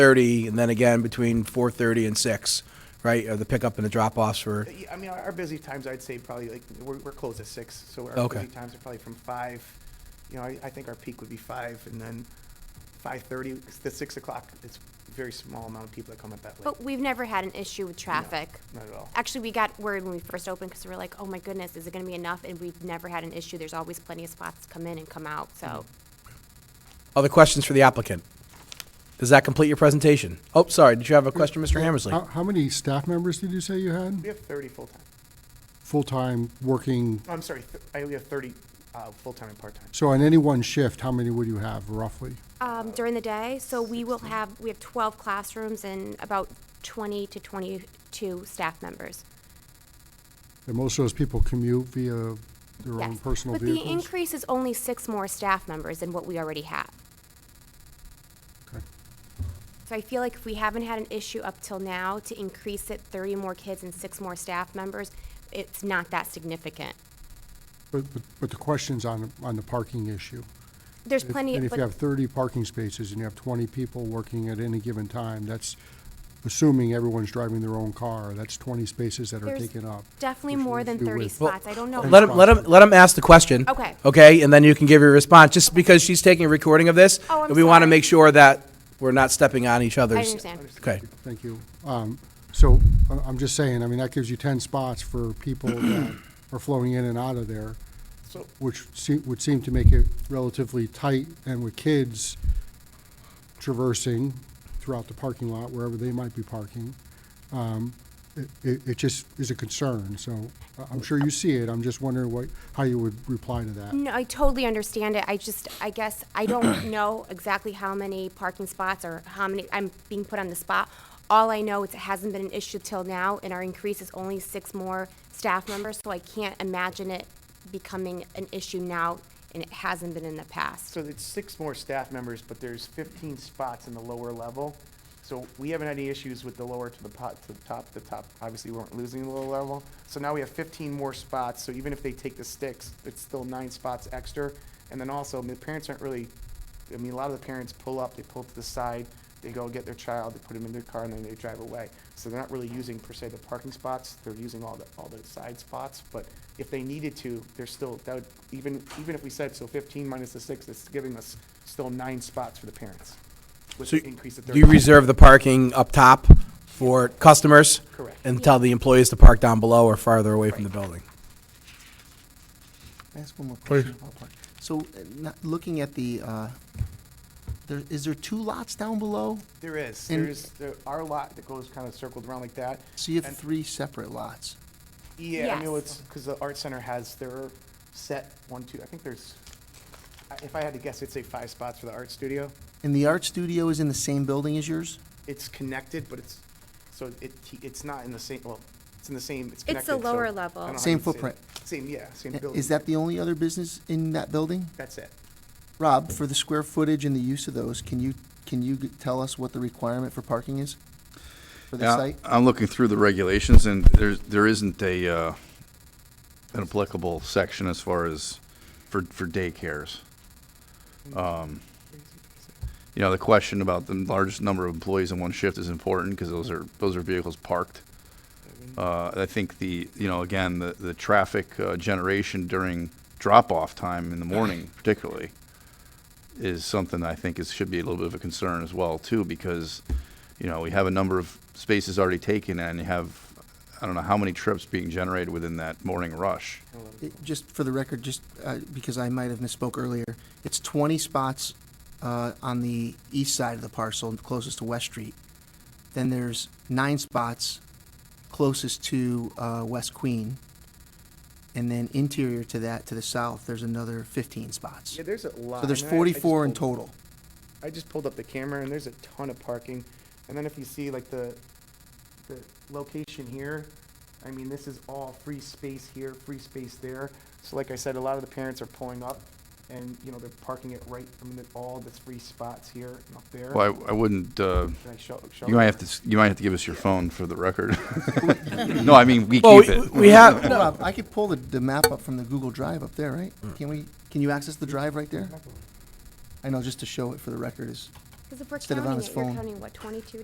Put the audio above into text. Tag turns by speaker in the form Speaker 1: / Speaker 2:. Speaker 1: thirty, and then again between four thirty and six, right? Are the pickup and the drop offs for
Speaker 2: Yeah, I mean, our our busy times, I'd say probably like, we're, we're closed at six, so our
Speaker 1: Okay.
Speaker 2: busy times are probably from five. You know, I, I think our peak would be five and then five thirty to six o'clock. It's a very small amount of people that come up that late.
Speaker 3: But we've never had an issue with traffic.
Speaker 2: Not at all.
Speaker 3: Actually, we got worried when we first opened because we were like, oh my goodness, is it going to be enough? And we've never had an issue. There's always plenty of spots to come in and come out. So
Speaker 1: other questions for the applicant? Does that complete your presentation? Oh, sorry, did you have a question, Mr. Hammersley?
Speaker 3: Uh,
Speaker 4: How, how many staff members did you say you had?
Speaker 2: We have thirty full-time. oh,
Speaker 4: Full-time, working,
Speaker 2: I'm sorry, th- I, we have thirty, uh, full-time and part-time.
Speaker 4: so on any one shift, how many would you have roughly?
Speaker 3: um, during the day, so we will have, we have 12 classrooms and about 20 to 22 staff members.
Speaker 4: And most of those people commute via their own
Speaker 3: Yes.
Speaker 4: personal
Speaker 3: But
Speaker 4: vehicles?
Speaker 3: the increase is only six more staff members than what we already have.
Speaker 4: Okay.
Speaker 3: So I feel like if we haven't had an issue up till now to increase it 30 more kids and six more staff members, it's not that significant.
Speaker 4: But, but, but the question's on, on the parking issue.
Speaker 3: There's
Speaker 4: If-
Speaker 3: plenty,
Speaker 4: And if you
Speaker 3: but
Speaker 4: have thirty parking spaces and you have twenty people working at any given time, that's assuming everyone's driving their own car, that's twenty spaces that are
Speaker 3: There's
Speaker 4: taken up.
Speaker 3: definitely
Speaker 4: which
Speaker 3: more
Speaker 4: leaves
Speaker 3: than
Speaker 4: you
Speaker 3: 30
Speaker 4: with-
Speaker 3: spots. I don't know.
Speaker 1: Let him, let him, let him ask the question.
Speaker 3: Okay.
Speaker 1: Okay, and then you can give your response, just because she's taking a recording of this.
Speaker 3: Oh, I'm
Speaker 1: And we want to
Speaker 3: sorry.
Speaker 1: make sure that we're not stepping on each other's.
Speaker 3: I understand.
Speaker 1: Okay,
Speaker 4: Thank you. Um, So I- I'm just saying, I mean, that gives you 10 spots for people that are flowing in and out of there,
Speaker 2: So,
Speaker 4: which se- would seem to make it relatively tight and with kids traversing throughout the parking lot, wherever they might be parking. um, It it- it just is a concern, so I- I'm sure you see it. I'm just wondering what, how you would reply to that.
Speaker 3: No, I totally understand it. I just, I guess, I don't know exactly how many parking spots or how many, I'm being put on the spot. All I know is it hasn't been an issue till now, and our increase is only six more staff members, so I can't imagine it becoming an issue now, and it hasn't been in the past.
Speaker 2: so it's six more staff members, but there's fifteen spots in the lower level. So we haven't had any issues with the lower to the pot, to the top, the top, obviously we weren't losing the lower level. So now we have fifteen more spots, so even if they take the sticks, it's still nine spots extra. And then also, I mean, the parents aren't really, I mean, a lot of the parents pull up, they pull to the side, they go get their child, they put them in their car, and then they drive away. So they're not really using per se the parking spots, they're using all the, all the side spots, but if they needed to, they're still, that would, even, even if we said, so fifteen minus the six, it's giving us still nine spots for the parents. With
Speaker 1: So
Speaker 2: the increase of
Speaker 1: do you
Speaker 2: 30.
Speaker 1: reserve the parking up top for customers?
Speaker 2: Correct.
Speaker 1: And tell the employees to park down below or farther away from the building?
Speaker 5: Can I ask one more question about parking? So, uh, not, looking at the, uh, there, is there two lots down below?
Speaker 2: There is,
Speaker 5: And-
Speaker 2: there's, there, our lot that goes kind of circled around like that.
Speaker 5: So you have
Speaker 2: And-
Speaker 5: three separate lots.
Speaker 2: Yeah, I mean,
Speaker 3: Yes.
Speaker 2: it's, because the art center has their set, one, two, I think there's, I- if I had to guess, I'd say five spots for the art studio.
Speaker 5: And the art studio is in the same building as yours?
Speaker 2: It's connected, but it's, so it, it's not in the same, well, it's in the same, it's
Speaker 3: a
Speaker 2: connected. so
Speaker 3: lower
Speaker 2: I don't know
Speaker 3: level.
Speaker 2: how
Speaker 5: Same
Speaker 2: you'd say it.
Speaker 5: footprint.
Speaker 2: Same, yeah, same
Speaker 5: I-
Speaker 2: building.
Speaker 5: Is that the only other business in that building?
Speaker 2: That's it.
Speaker 5: Rob, for the square footage and the use of those, can you, can you g- tell us what the requirement for parking is? For the
Speaker 6: Yeah,
Speaker 5: site?
Speaker 6: I'm looking through the regulations, and there's, there isn't a, uh, an applicable section as far as for, for daycares. Um, You know, the question about the largest number of employees in one shift is important, because those are, those are vehicles parked. Uh, I think the, you know, again, the, the traffic uh, generation during drop-off time in the morning particularly is something I think is, should be a little bit of a concern as well, too, because, you know, we have a number of spaces already taken, and you have, I don't know how many trips being generated within that morning rush.
Speaker 5: It- Just for the record, just, uh, because I might have misspoke earlier, it's twenty spots, uh, on the east side of the parcel, closest to West Street. Then there's nine spots closest to, uh, West Queen. And then interior to that, to the south, there's another fifteen spots.
Speaker 2: Yeah, there's a lot.
Speaker 5: So there's
Speaker 2: I mean, I- I just
Speaker 5: forty-four in
Speaker 2: pulled-
Speaker 5: total.
Speaker 2: I just pulled up the camera and there's a ton of parking. And then if you see like the, the location here, I mean, this is all free space here, free space there. So like I said, a lot of the parents are pulling up and, you know, they're parking it right, I mean, they're- all the free spots here and up there.
Speaker 6: Well, I, I wouldn't, uh,
Speaker 2: Can I show, show?
Speaker 6: you might have to, s- you might have to give us your phone for the record. No, I mean, we
Speaker 1: Well,
Speaker 6: keep
Speaker 1: we-
Speaker 6: it.
Speaker 1: we have, no,
Speaker 5: Rob, I could pull the, the map up from the Google Drive up
Speaker 2: Mm.
Speaker 5: there, right? Can we, can you access the drive right there? I know, just to show it for the record is,
Speaker 3: Because if we're
Speaker 5: Instead of on
Speaker 3: counting
Speaker 5: his
Speaker 3: it, you're
Speaker 5: phone.
Speaker 3: counting, what, twenty-two